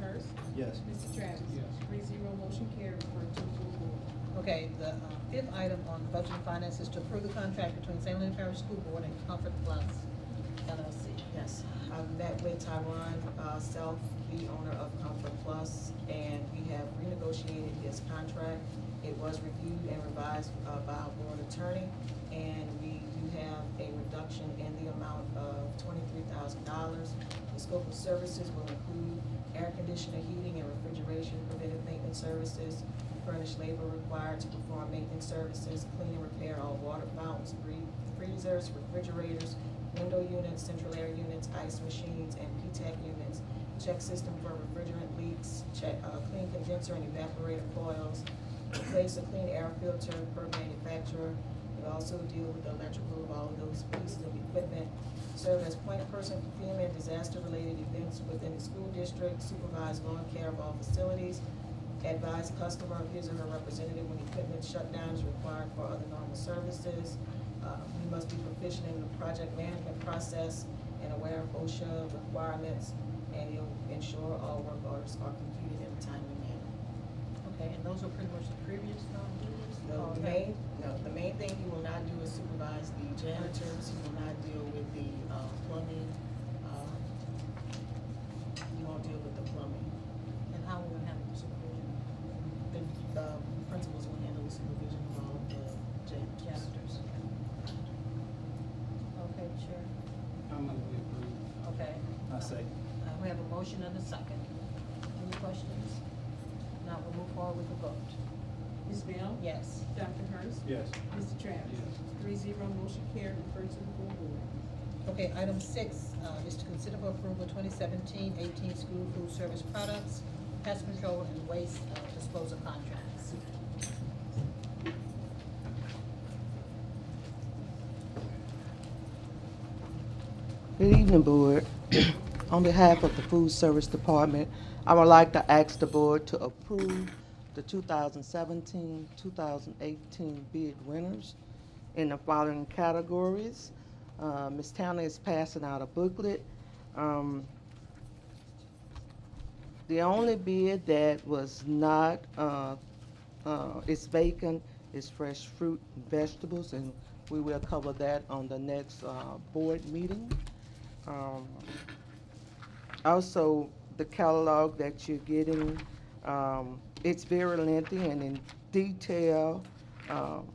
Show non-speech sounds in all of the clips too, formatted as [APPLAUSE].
Hurst. Yes. Mr. Travis. Yes. Three zero, motion carried, refer to full board. Okay, the uh, fifth item on budget and finance is to approve the contract between St. Louis Parish School Board and Comfort Plus LLC. Yes, I've met with Tyron uh, Self, the owner of Comfort Plus, and we have renegotiated his contract. It was reviewed and revised uh, by our board attorney, and we do have a reduction in the amount of twenty-three thousand dollars. The scope of services will include air conditioner, heating, and refrigeration, preventive maintenance services, furnished labor required to perform maintenance services, clean and repair all water fountains, free- freezers, refrigerators, window units, central air units, ice machines, and P-TAC units. Check system for refrigerant leaks, check, uh, clean condenser and evaporator coils, replace a clean air filter per manufacturer. We also deal with the electrical of all of those pieces of equipment. Serve as point person for FEMA and disaster-related events within the school district, supervise lawn care of all facilities, advise customer of his or her representative when equipment shutdown is required for other normal services. Uh, We must be proficient in the project management process and aware of OSHA requirements, and he'll ensure all work orders are completed in a timely manner. Okay, and those were pretty much the previous non-dues? The main, no, the main thing he will not do is supervise the janitors, he will not deal with the uh, plumbing, uh, he won't deal with the plumbing. And how will it happen, supervision? The uh, principals will handle the supervision of all of the janitors. Janitors. Okay, Chair. I'm gonna be approved. Okay. I say. Uh, We have a motion and a second. Any questions? Now we'll move forward with the vote. Ms. Bell? Yes. Dr. Hurst. Yes. Mr. Travis. Yes. Three zero, motion carried, refer to the full board. Okay, item six uh, is to consider for approval 2017-18 school food service products, pest control and waste uh, disposal contracts. Good evening, Board. [CLEARS THROAT] On behalf of the Food Service Department, I would like to ask the Board to approve the 2017, 2018 bid winners in the following categories. Uh, Ms. Towner is passing out a booklet. Um, The only bid that was not, uh, uh, is vacant is fresh fruit and vegetables, and we will cover that on the next uh, board meeting. Um, Also, the catalog that you're getting, um, it's very lengthy and in detail um,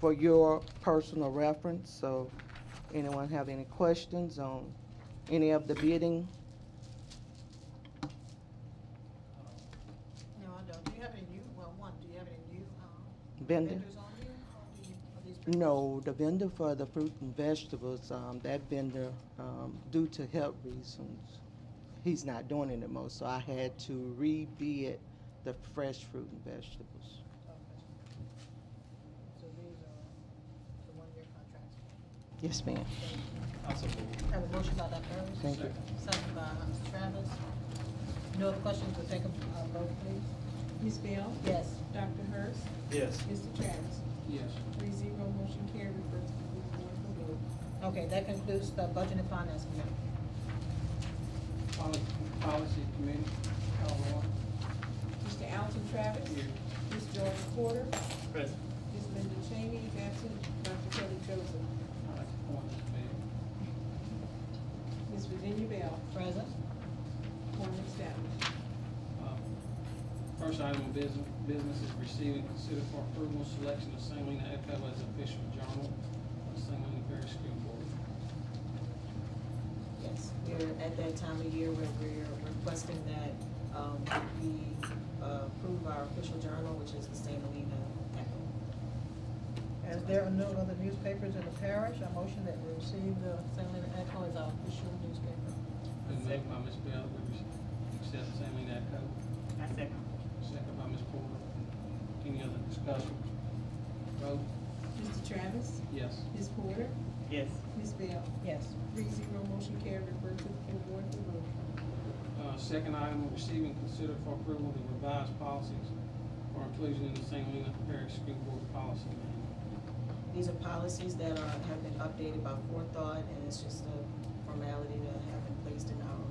for your personal reference, so anyone have any questions on any of the bidding? No, I don't. Do you have any new, well, one, do you have any new um, Vendor? vendors on here? Or do you- are these pretty No, the vendor for the fruit and vegetables, um, that vendor, um, due to health reasons, he's not doing it anymore, so I had to rebid the fresh fruit and vegetables. much- okay. So these are the one-year contracts. Yes, ma'am. I support. Have a motion by Dr. Hurst. Thank you. Second by Mr. Travis. No other questions, we'll take a uh, vote, please. Ms. Bell? Yes. Dr. Hurst. Yes. Mr. Travis. Yes. Three zero, motion carried, refer to the full board for vote. Okay, that concludes the Budget and Finance Committee. Policy, policy committee, call one. Mr. Alton Travis. Here. Ms. George Porter. Present. Ms. Linda Cheney is absent. Dr. Kelly Joseph. I'd like to appoint Ms. Bell. Ms. Virginia Bell. Present? Form established. Uh, First item of business, business is receiving, and consider for approval, selection of St. Helena Echo as official journal of St. Helena Parish School Board. Yes, we're at that time of year where we're requesting that, um, we uh, approve our official journal, which is the St. Helena Echo. As there are no other newspapers in the parish, I motion that we receive the St. Leonard Echo as our official newspaper. Been moved by Ms. Bell, we accept St. Helena Echo. I second. Second by Ms. Porter. Any other discussion? Vote, Mr. Travis. yes. Ms. Porter. Yes, Ms. Bell. Yes. Three zero, motion carried, refer to the full board for vote. Uh, Second item, receive and consider for approval the revised policies for inclusion in the St. Helena Parish School Board Policy Manual. These are policies that are, have been updated by forethought, and it's just a formality to have been placed in our